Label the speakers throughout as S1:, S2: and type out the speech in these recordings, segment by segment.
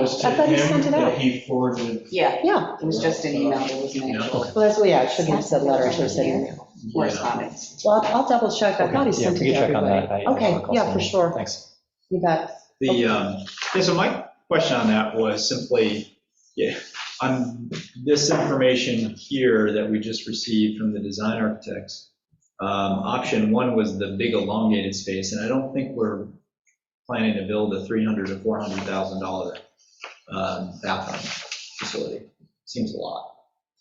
S1: was to
S2: I thought he
S1: him
S2: sent it
S1: that
S2: out.
S1: he forwarded.
S3: Yeah,
S2: Yeah,
S3: it was just an email, it was an actual
S2: well, that's, well, yeah, it shouldn't have said letter, it should have said email.
S3: correspondence.
S2: Well, I'll I'll double check, I thought he
S4: Okay, yeah,
S2: sent
S4: we
S2: it
S4: can
S2: to
S4: check on
S2: everybody.
S4: that. I- I
S2: Okay,
S4: recall
S2: yeah,
S4: seeing
S2: for
S4: it.
S2: sure,
S4: Thanks.
S2: you bet.
S1: The, um, yeah, so my question on that was simply, yeah, on this information here that we just received from the design architects, um, option one was the big elongated space, and I don't think we're planning to build a $300,000 to $400,000 um, bathroom facility. Seems a lot.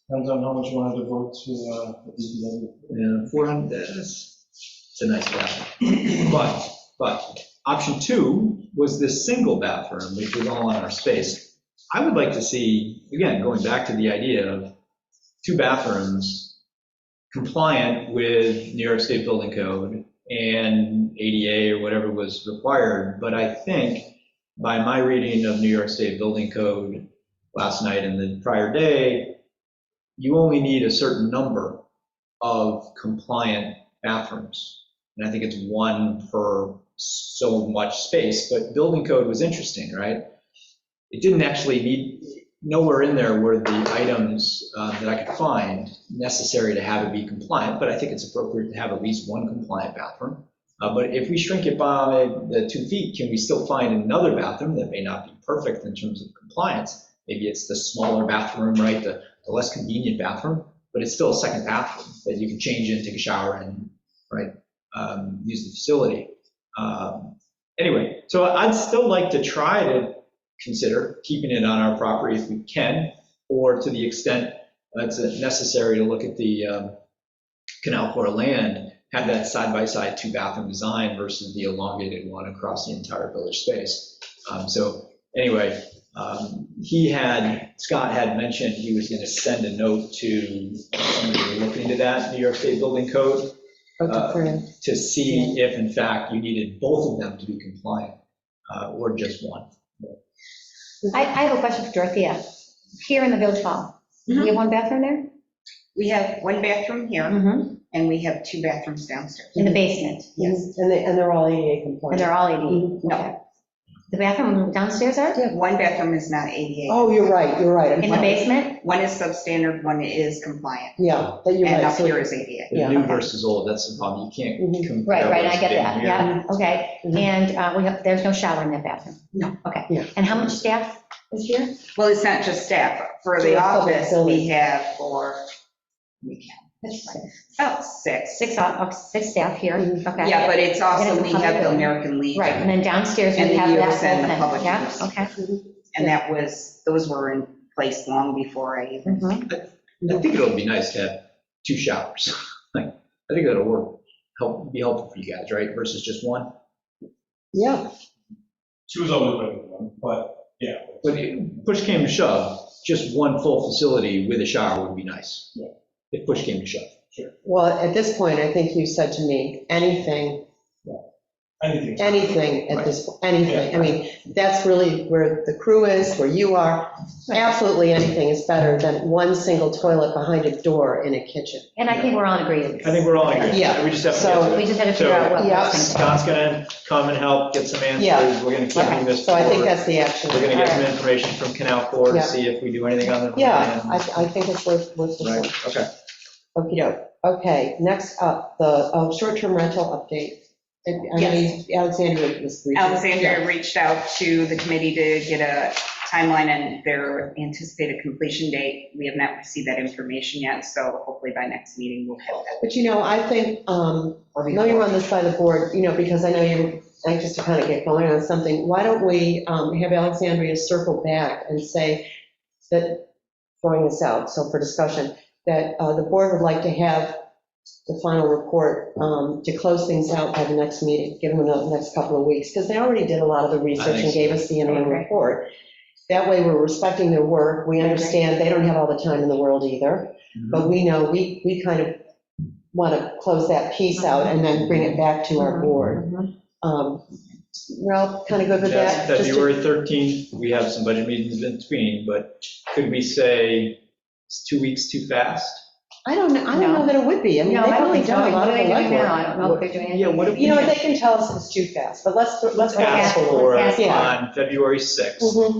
S5: Depends on how much you want to devote to, uh, these other-
S1: Yeah, 400, that's, it's a nice bathroom. But, but, option two was this single bathroom, which was all on our space. I would like to see, again, going back to the idea of two bathrooms compliant with New York State Building Code and ADA or whatever was required, but I think by my reading of New York State Building Code last night and the prior day, you only need a certain number of compliant bathrooms. And I think it's one per so much space, but building code was interesting, right? It didn't actually need, nowhere in there were the items uh, that I could find necessary to have it be compliant, but I think it's appropriate to have at least one compliant bathroom. Uh, But if we shrink it by the two feet, can we still find another bathroom that may not be perfect in terms of compliance? Maybe it's the smaller bathroom, right, the the less convenient bathroom, but it's still a second bathroom that you can change in, take a shower in, right? um, Use the facility. Um, Anyway, so I'd still like to try to consider keeping it on our property if we can, or to the extent that's necessary to look at the um, Canal Corps land, have that side-by-side two-bathroom design versus the elongated one across the entire village space. Um, So anyway, um, He had, Scott had mentioned he was going to send a note to somebody who looked into that New York State Building Code
S2: Vote to approve.
S1: to see if in fact you needed both of them to be compliant uh, or just one.
S6: I, I have a question for Dorothea. Here in the village hall,
S2: Mm-hmm.
S6: you have one bathroom there?
S3: We have one bathroom here,
S2: Mhm.
S3: and we have two bathrooms downstairs.
S6: In the basement?
S3: Yes.
S2: And they, and they're all ADA
S6: And
S2: compliant.
S6: they're all
S2: Mm-hmm.
S6: ADA?
S3: No.
S6: Okay. The bathroom downstairs are?
S3: One bathroom is not ADA.
S2: Oh, you're right, you're right. I'm
S6: In the
S2: fine.
S6: basement?
S3: One is substandard, one is compliant,
S2: Yeah, that you're
S3: and
S2: right.
S3: up
S2: So-
S3: here is ADA.
S1: The
S2: Yeah.
S1: new versus old, that's the problem. You
S2: Mhm.
S1: can't compare.
S6: Mm-hmm. Right, right,
S1: what's
S6: I get
S1: been
S6: that,
S1: here.
S6: yeah, okay.
S2: Mhm.
S6: And uh, we have, there's no shower in that bathroom?
S3: No.
S6: Okay.
S2: Yeah.
S6: And how much staff is here?
S3: Well, it's not just staff. For the
S2: Yeah, public
S3: office, we
S2: building.
S3: have four, we have about six.
S6: Six, o- oh, six staff here,
S2: Mhm.
S6: okay.
S3: Yeah, but it's
S6: And
S3: also,
S6: it's
S3: we
S6: public
S3: have the
S6: building.
S3: American Legion.
S6: Right, and then downstairs
S3: And
S6: we
S3: the
S6: have that
S3: use and the
S6: whole
S3: public
S6: thing. Yeah,
S3: use.
S6: okay.
S2: Mm-hmm.
S3: And that was, those were in place long before I even
S6: Mhm.
S1: I think it'll be nice to have two showers. Like, I think that'll work, help, be helpful for you guys, right? Versus just one.
S2: Yeah,
S5: Two is always better than one, but, yeah.
S1: But if push came to shove, just one full facility with a shower would be nice.
S5: Yeah.
S1: If push came to shove.
S2: well, at this point, I think you said to me, anything,
S5: Anything.
S2: anything at this, anything. I mean, that's really where the crew is, where you are. Absolutely anything is better than one single toilet behind a door in a kitchen.
S6: And I think we're all in agreement.
S1: I think we're all agreed.
S2: Yeah.
S1: We just have to
S2: So-
S1: get to
S6: We
S1: it.
S6: just had to figure out what.
S2: Yeah.
S6: works.
S1: Scott's gonna come and help, get some answers.
S2: Yeah.
S1: We're gonna keep moving this
S2: So I think
S1: forward.
S2: that's the action.
S1: We're gonna get some information from Canal Corps
S2: Yeah.
S1: to see if we do anything on the
S2: Yeah, I,
S1: plan.
S2: I think it's worth, worth pursuing.
S1: Right, okay.
S2: Okey-doke. Okay, next up, the uh, short-term rental update. I I mean, Alexandria was briefing.
S3: Alexandria reached out to the committee to get a timeline and their anticipated completion date. We have not received that information yet, so hopefully by next meeting we'll have that.
S2: But you know, I think, um,
S3: Or
S2: I know you're
S3: before.
S2: on this side of the board, you know, because I know you're anxious to kind of get going on something. Why don't we um, have Alexandria circle back and say that, throwing this out, so for discussion, that uh, the board would like to have the final report um, to close things out by the next meeting, give them the next couple of weeks, because they already did a lot of the research and
S1: so.
S2: gave us the interim
S3: Okay.
S2: report. That way, we're respecting their work. We
S3: Okay.
S2: understand they don't have all the time in the world either. But we know, we, we kind of want to close that piece out and then bring it back to our board.
S3: Mhm.
S2: Um, We're all kind of good with
S1: That's
S2: that? Just to-
S1: February 13th, we have some budget meetings in between, but could we say it's two weeks too fast?
S2: I don't, know- I don't know that it would be. I mean,
S6: No, I
S2: they've
S6: don't
S2: really
S6: think so.
S2: done a lot
S6: What
S2: of
S6: are
S2: the
S6: they doing now?
S2: legwork.
S6: I don't know if they're doing anything.
S1: Yeah, what if we
S2: You know, what,
S1: had
S2: they can tell us it's too fast, but let's, let's.
S1: asked
S6: ask-
S1: for
S6: let's ask. Mm-hmm.
S1: on February 6th?
S2: Mhm.